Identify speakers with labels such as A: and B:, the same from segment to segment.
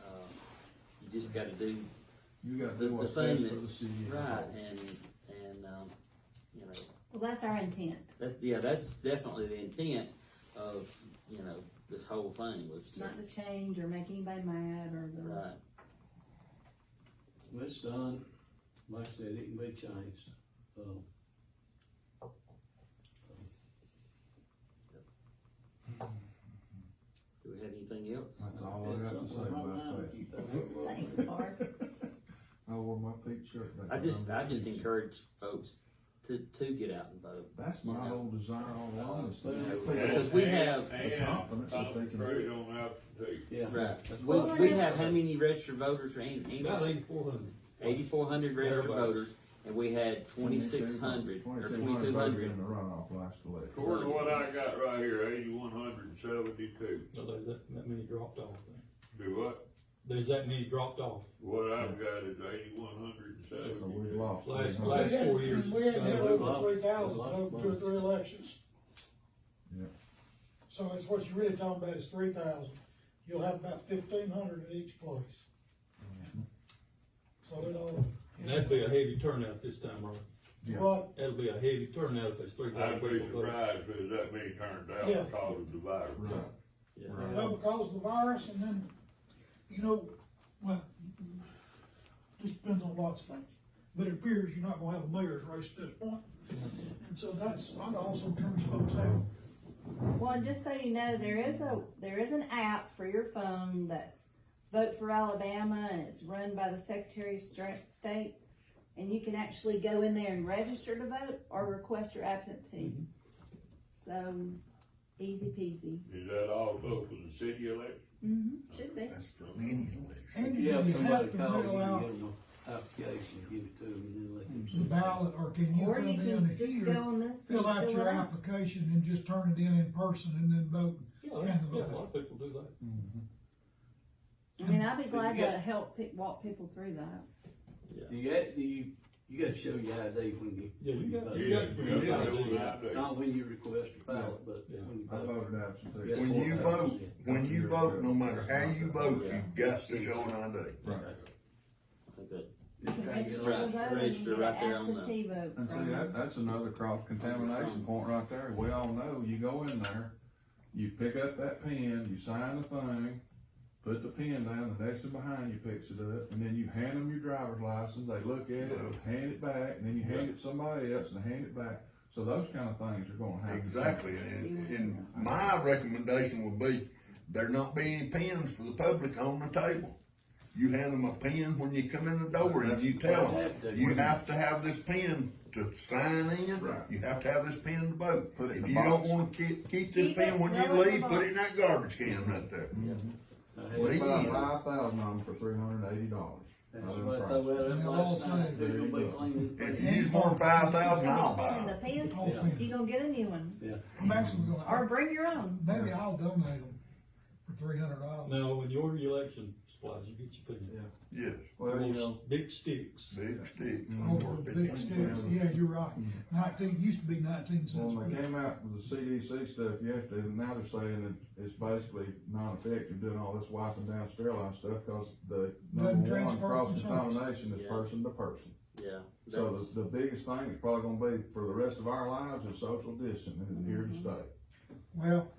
A: Uh, just gotta do
B: You gotta
A: the,
B: do
A: the
B: what's
A: thing
B: best for the
A: that's
B: city. as a
A: right,
B: whole.
A: and, and, um, you know,
C: Well, that's our intent.
A: that, yeah, that's definitely the intent of, you know, this whole thing was to,
C: Not to change or make anybody mad or the,
A: right,
D: When it's done, like I said, it can be changed, um.
A: do we have anything else?
B: That's all I
D: it's
B: have to say
D: something right now
B: about that.
D: that you think we're wrong.
C: thanks, Bart.
B: I wore my pink shirt back
A: I
B: there.
A: just,
B: I'm
A: I just
B: pink.
A: encourage folks to, to get out and vote.
B: That's my
A: Yeah. Oh,
B: whole desire all along is to have
A: Because
B: people
A: we have-
B: the confidence that they can-
E: Voted on out today.
D: Yeah.
A: Right,
D: That's
A: we,
D: what-
A: we have how many registered voters,
E: About
A: eighty-four
E: eighty-four hundred.
A: hundred registered
E: Everybody.
A: voters, and we had twenty-six hundred or
B: 2,600
A: twenty-two
B: voted
A: hundred.
B: in the runoff last election.
E: According to what I got right here, eighty-one hundred and seventy-two.
F: So there's that, that many dropped off then?
E: Do what?
F: There's that many dropped off
E: What I've got is eighty-one hundred and
B: So we
E: seventy-two.
B: lost.
F: last,
B: 300.
F: last four years.
G: We had nearly
D: Yeah,
G: over
D: well,
G: three thousand,
D: well,
G: over two or three elections.
B: Yeah.
G: So it's what you're really talking about is three thousand. You'll have about fifteen hundred at each place. So it all.
F: And that'd be a heavy turnout this time, Rob.
B: Yeah.
G: But,
F: That'll be a heavy turnout if there's three
E: I'd
F: thousand
E: be
F: people voting.
E: surprised if there's that many turned out
G: Yeah.
E: because of the virus.
B: Right. Right.
G: well, because of the virus and then, you know, well, just depends on lots of things. But it appears you're not gonna have a mayor's race at this point. And so that's, that also turns folks out.
C: Well, just so you know, there is a, there is an app for your phone that's Vote for Alabama, and it's run by the Secretary of Stra- State. And you can actually go in there and register to vote or request your absentee.
G: Mm-hmm.
C: So, easy peasy.
E: Is that also for the city election?
C: Mm-hmm, should be.
B: That's for many elections.
G: And
D: You
G: you
D: have somebody
G: have to
D: call, you
G: mail
D: can
G: out
D: get them an application, give it to them, and then let them.
G: the
D: see.
G: ballot, or can you
C: Or
G: come
C: you
G: in
C: can just go
G: here,
C: on this.
G: fill
C: and
G: out your
C: it out.
G: application and just turn it in in person and then vote?
F: Yeah, yeah,
G: And the
F: a
G: vote.
F: lot of people do that.
C: I mean, I'd be glad to
D: Yeah.
C: help pe- walk people through that.
D: Do you, act- do you, you gotta show your ID when you.
F: Yeah, you got, you
E: Yeah,
F: got to bring
E: you
F: this
E: gotta
F: out
E: do
F: to
E: it
F: you.
E: out there.
D: Not when you request a ballot, but
F: Yeah.
D: when you
B: I
D: vote.
B: voted absentee.
D: Yes.
H: When you
B: Yeah.
H: vote, when you vote, no matter how you vote,
A: Yeah.
H: you've got to show an ID.
B: Right.
A: I think that-
C: You can
D: Try to get
C: register
D: a
C: to
A: Right,
C: vote and you
A: register
C: get
A: right
C: an
A: there on the-
C: absentee vote
B: And see,
C: from
B: that, that's another cross contamination point right there. We all know, you go in there, you pick up that pen, you sign the thing, put the pen down, the next one behind you picks it up, and then you hand them your driver's license, they look at it, hand it back, and then you hand it to somebody else and hand it back. So those kind of things are gonna happen.
H: Exactly, and, and my recommendation would be, there not be any pens for the public on the table. You hand them a pen when you come in the door and you tell them, you have to have this pen to sign in,
B: Right.
H: you have to have this pen to vote.
B: Put it in
H: If
B: the
H: you don't
B: box.
H: wanna keep, keep this
C: Keep it
H: pen when you
C: well in the
H: leave, put it in
C: box.
H: that garbage can right there.
D: I
B: We
D: had-
B: buy
H: Leave.
B: five thousand of them for three hundred and eighty dollars.
D: That's what I thought about it
G: They're all
D: last night,
G: saying-
D: they're gonna be
B: There you go.
D: cleaning.
H: If you use more than five thousand, I'll buy
C: And
H: it.
C: the pins,
G: All pens.
C: you gonna get a new one,
D: Yeah.
G: I'm actually
C: or
G: gonna,
C: bring your own.
G: maybe I'll donate them for three hundred dollars.
F: Now, when you order your election supplies, you get your pen.
H: Yes,
B: Well, you know,
F: Big sticks.
H: big sticks.
G: Over the big sticks, yeah, you're right. Nineteen, used to be nineteen cents.
B: When they
G: but-
B: came out with the CDC stuff yesterday, and now they're saying that it's basically non-effective doing all this wiping down sterilized stuff, cause the
G: Doesn't
B: number one
G: transfer from
B: cross
G: source.
B: contamination is
A: Yeah.
B: person to person.
A: yeah.
B: So
A: that's-
B: the, the biggest thing is probably gonna be for the rest of our lives is social distancing and here
D: Mm-hmm.
B: to stay.
G: Well,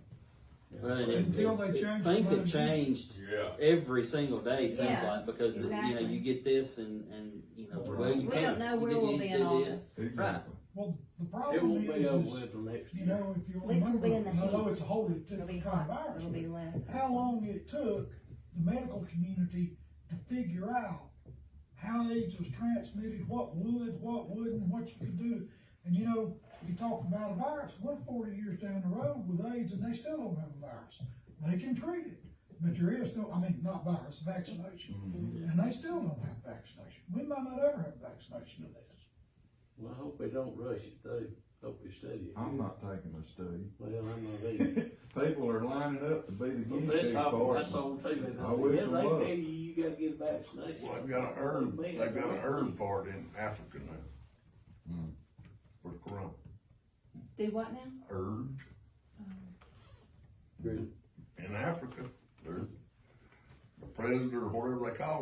A: Well, and it-
G: Until they
A: it-
G: change the
A: Things have
G: money.
A: changed
E: Yeah.
A: every single day, seems
C: Yeah,
A: like, because, you know,
C: exactly.
A: you get this and, and, you know, well, you
C: We don't
A: can't,
C: know
A: you
C: where we'll
A: didn't
C: be
A: need to
C: in
A: do this.
C: August.
B: Exactly.
G: well, the
D: It
G: problem
D: won't be over
G: is, is,
D: with till next
G: you
D: year.
G: know, if you
C: At least we'll
G: remember,
C: be in the
G: I know
C: heat.
G: it's a whole
C: It'll be
G: different kind of
C: hot,
G: virus.
C: it'll be less.
G: but How long it took the medical community to figure out how AIDS was transmitted, what would, what wouldn't, what you could do. And you know, you talk about a virus, we're forty years down the road with AIDS and they still don't have a virus. They can treat it, but there is no, I mean, not virus, vaccination. And they still don't have vaccination. We might not ever have vaccination of this.
D: Well, I hope they don't rush it though, hope they study it.
B: I'm not taking a study.
D: Well, I'm not either.
B: People are lining up to be the guinea
D: But
B: pig
D: it's awful,
B: for it.
D: that's on TV.
B: I wish it
D: Yeah, they
B: was.
D: tell you, you gotta get a vaccination.
H: Well, they've got an herb, they've got an herb for it in Africa now. For the corona,
C: Do what now?
H: herb
D: Really?
H: in Africa, they're, the president or whatever they call them.